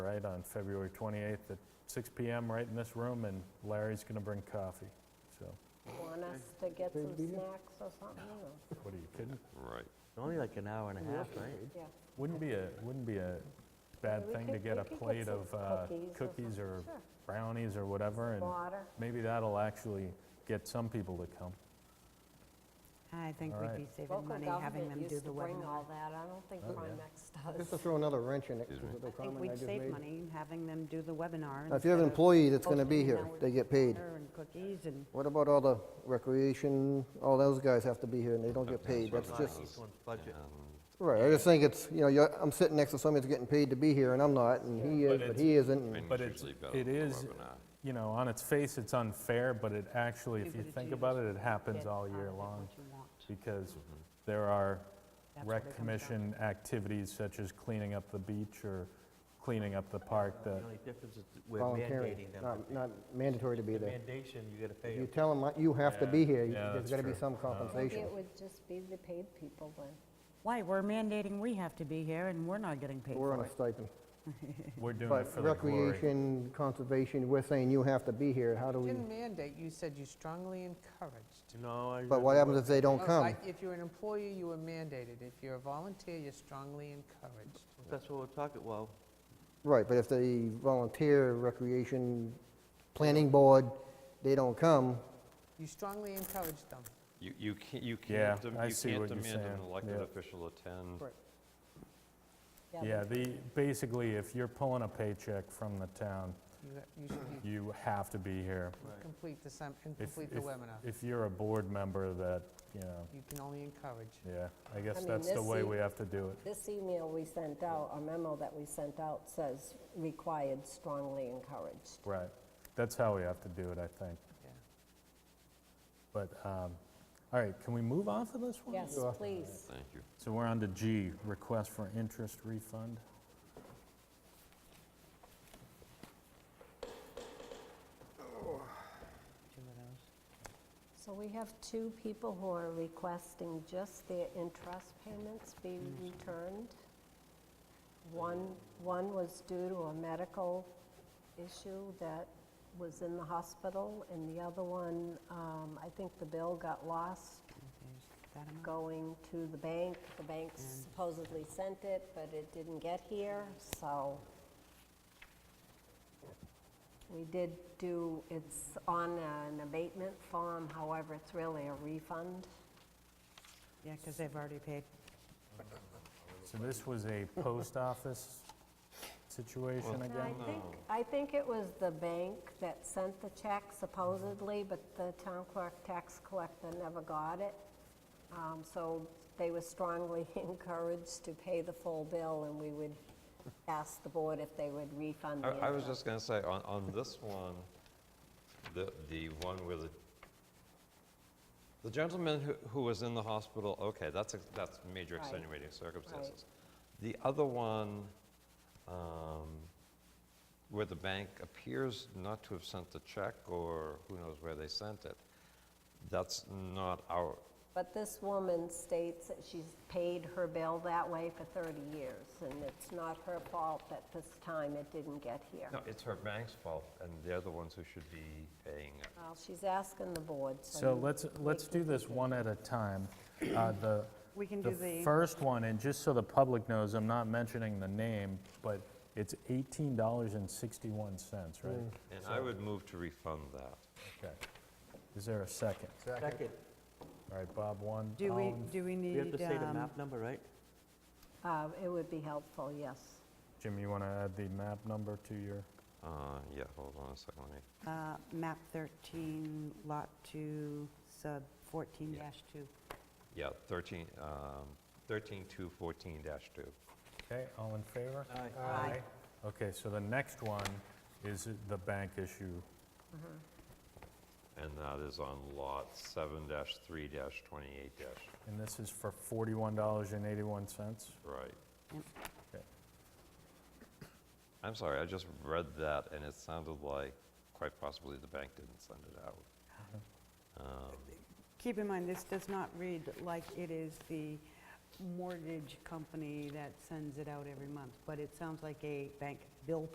right, on February 28th at 6 PM, right in this room, and Larry's going to bring coffee. So, Want us to get some snacks or something? or- what are you kidding? Right. Only like an hour and a half, right? Yeah. Wouldn't be a, wouldn't be a bad Yeah, we thing to could- get we a could get plate some of uh, cookies or cookies something. or Sure. brownies or whatever, and Water. maybe that'll actually get some people to come. I think All we'd right. be saving Local money having government them do used the to bring all webinar. that. I don't Oh, think Primex Just to does. throw another wrench in it, Excuse me. with the I think comment I we'd just save made. money having them do the webinar. Now, if you have an instead of employee that's gonna be hosting an here, hour they get paid. dinner And cookies and, What about all the recreation, all those guys have to be here and they don't get paid, that's Sometimes just, Um, it's- one's budget. right, I just think it's, you know, you're- I'm sitting next to somebody that's getting paid to be here and I'm not, and he is, but it's- he isn't. and- And But Mm, it's- it's usually better it than the is- webinar. You know, on its face, it's unfair, but it actually, if People you that think you about it, it happens get all out of year it long, what you want. because Mm-hmm. there are That's what it rec comes down to. commission activities such as cleaning up the beach or cleaning up the Oh, park The that only difference is we're Voluntary, mandating them. not, not mandatory to be The there. mandation, you gotta If pay you them. tell them you have to be Yeah, here, you- yeah, there's that's gotta be true. Uh-huh. some Maybe compensation. it would just be the paid people then. why, we're mandating we have to be here and we're not getting paid We're on for a it. stipend. we're doing it But for the glory. recreation, conservation, we're saying you have to be here, how do we, Didn't mandate, you said you strongly encouraged. No, I. but what happens if they don't No, Oh, come? like, If you're an employee, you are mandated. If you're a volunteer, you're strongly encouraged. That's what we're talking, well, Right, but if the volunteer recreation planning board, they don't come, You strongly encourage them. You, you can't, you Yeah, can't, dem- I you see can't what you're demand an saying. elected Yeah. official attend. Right. Yeah, but the, basically, if you're pulling a paycheck from the town, You ha- you should be- you have to be here. complete the, sem- and If- complete the if- webinar. If you're a board member that, you know, You can only encourage. yeah, I I guess mean, that's the this way seat- we have to do it. This email we sent out, a memo that we sent out says required strongly encouraged. Right. That's how we have to do it, I think. Yeah. But, um, all right, can we move on to this one? Yes, please. Thank you. So we're on to G, request for interest refund. So we have two people who are requesting just their interest payments be returned. One, one was due to a medical issue that was in the hospital, and the other one, um, I think the bill got lost There's that amount. going to the bank. The bank supposedly sent it, but it didn't get here, so we did do, it's on an abatement form, however, it's really a refund. Yeah, because they've already paid. So this was a post office situation And I again? think, I think it was the bank that sent the check supposedly, but the town clerk tax collector never got it. Um, So they were strongly encouraged to pay the full bill, and we would ask the board if they would refund I, the I was interest. just gonna say, on, on this one, the, the one where the, the gentleman who, who was in the hospital, okay, that's, ex- that's major Right. extenuating circumstances. The other one, um, where the bank appears not to have sent the check, or who knows where they sent it, that's not our, But this woman states that she's paid her bill that way for 30 years, and it's not her fault that this time it didn't get here. no, it's her bank's fault, and they're the ones who should be paying it. Well, she's asking the board, So so you- let's, let's do this one at a time. Uh, The, We can do the the, first one, and just so the public knows, I'm not mentioning the name, but it's $18.61, right? And I would move to refund that. Okay. Is there a second? second, All right, Bob, one. do all we, in- do we need? we have to say the um, map number, right? uh, it would be helpful, yes. Jim, you want to add the map number to your? Uh, yeah, hold on a second, let me. uh, Map 13, Lot 2, Sub 14-2. Yeah, 13, um, 13214-2. Okay, all in favor? Aye. Okay, so the next one is the bank issue. And that is on lot 7-3-28-, And this is for $41.81? right. Yep. Okay. I'm sorry, I just read that and it sounded like quite possibly the bank didn't send it out. Um, Keep in mind, this does not read like it is the mortgage company that sends it out every month, but it sounds like a bank bill